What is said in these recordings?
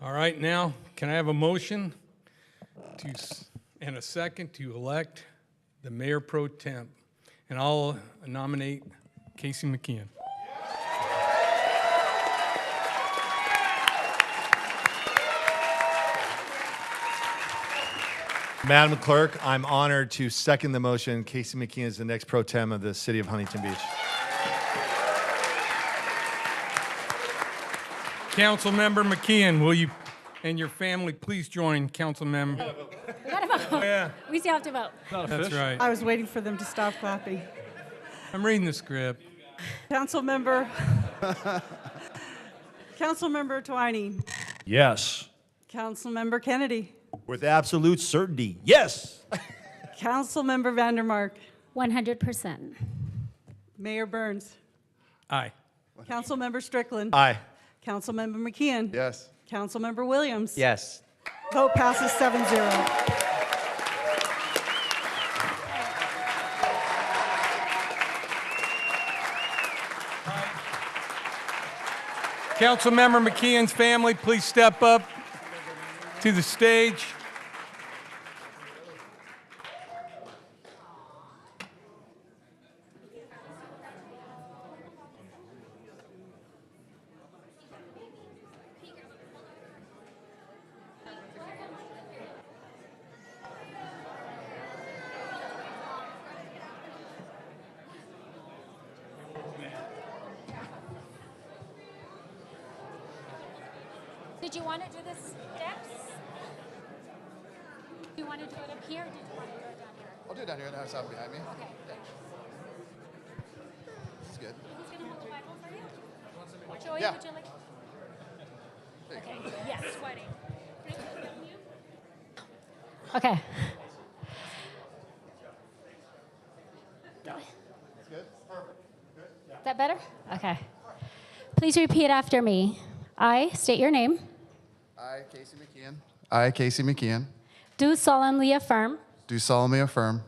All right, now, can I have a motion to, s- and a second to elect the mayor pro temp? And I'll nominate Casey McKeon. Madam Clerk, I'm honored to second the motion. Casey McKeon is the next pro tem of the city of Huntington Beach. Councilmember McKeon, will you and your family please join Councilmember? We still have to vote. That's right. I was waiting for them to stop clapping. I'm reading the script. Councilmember, Councilmember Twining, Yes. Councilmember Kennedy, With absolute certainty, yes. Councilmember Vandermark, 100%. Mayor Burns, Aye. Councilmember Strickland, Aye. Councilmember McKeon. Yes. Councilmember Williams. Yes. Vote passes seven zero. Councilmember McKeon's family, please step up to the stage. Did you want to do the steps? Do you want to do it up here or did you want to do it down here? I'll do it down here. That sound behind me. Okay. It's good. Who's going to hold the Bible for you? Joey, Yeah. would you like? Okay, yes, sweating. Okay. Is that better? Okay. Please repeat after me. I state your name. I, Casey McKeon. I, Casey McKeon, Do solemnly affirm do solemnly affirm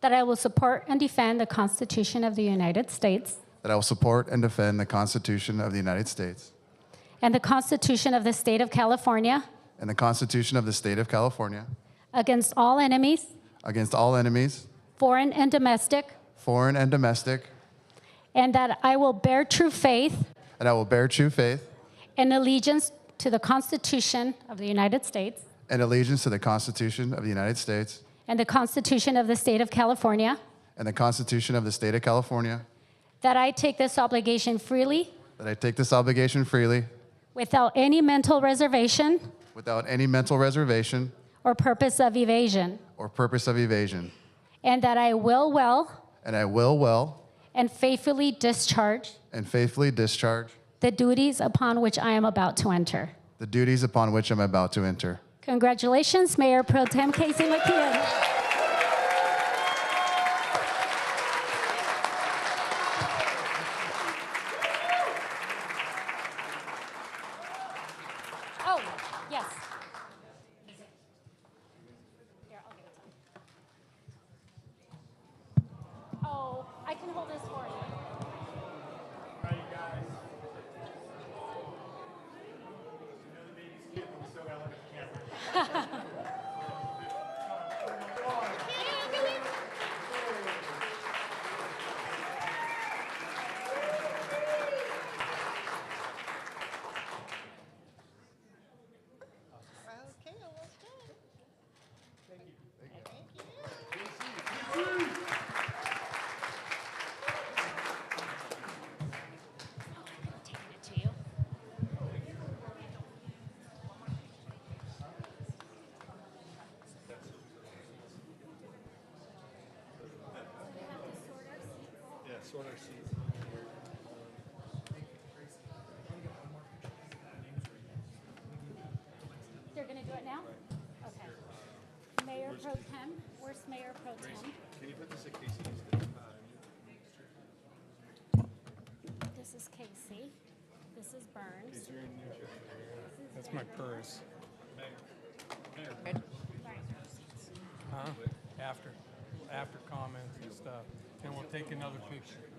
that I will support and defend the Constitution of the United States that I will support and defend the Constitution of the United States and the Constitution of the State of California and the Constitution of the State of California against all enemies, against all enemies, foreign and domestic, foreign and domestic, and that I will bear true faith and I will bear true faith and allegiance to the Constitution of the United States and allegiance to the Constitution of the United States and the Constitution of the State of California, and the Constitution of the State of California, that I take this obligation freely that I take this obligation freely without any mental reservation without any mental reservation or purpose of evasion, or purpose of evasion, and that I will well and I will well and faithfully discharge and faithfully discharge the duties upon which I am about to enter. the duties upon which I'm about to enter. Congratulations, Mayor Pro Tem Casey McKeon. Oh, yes. Here, I'll give it to him. Oh, I can hold this for you. They're gonna do it now? Okay. Mayor Pro Tem, where's Mayor Pro Tem? This is Casey. This is Burns. That's my purse. Huh? After, after comments and stuff. And we'll take another picture.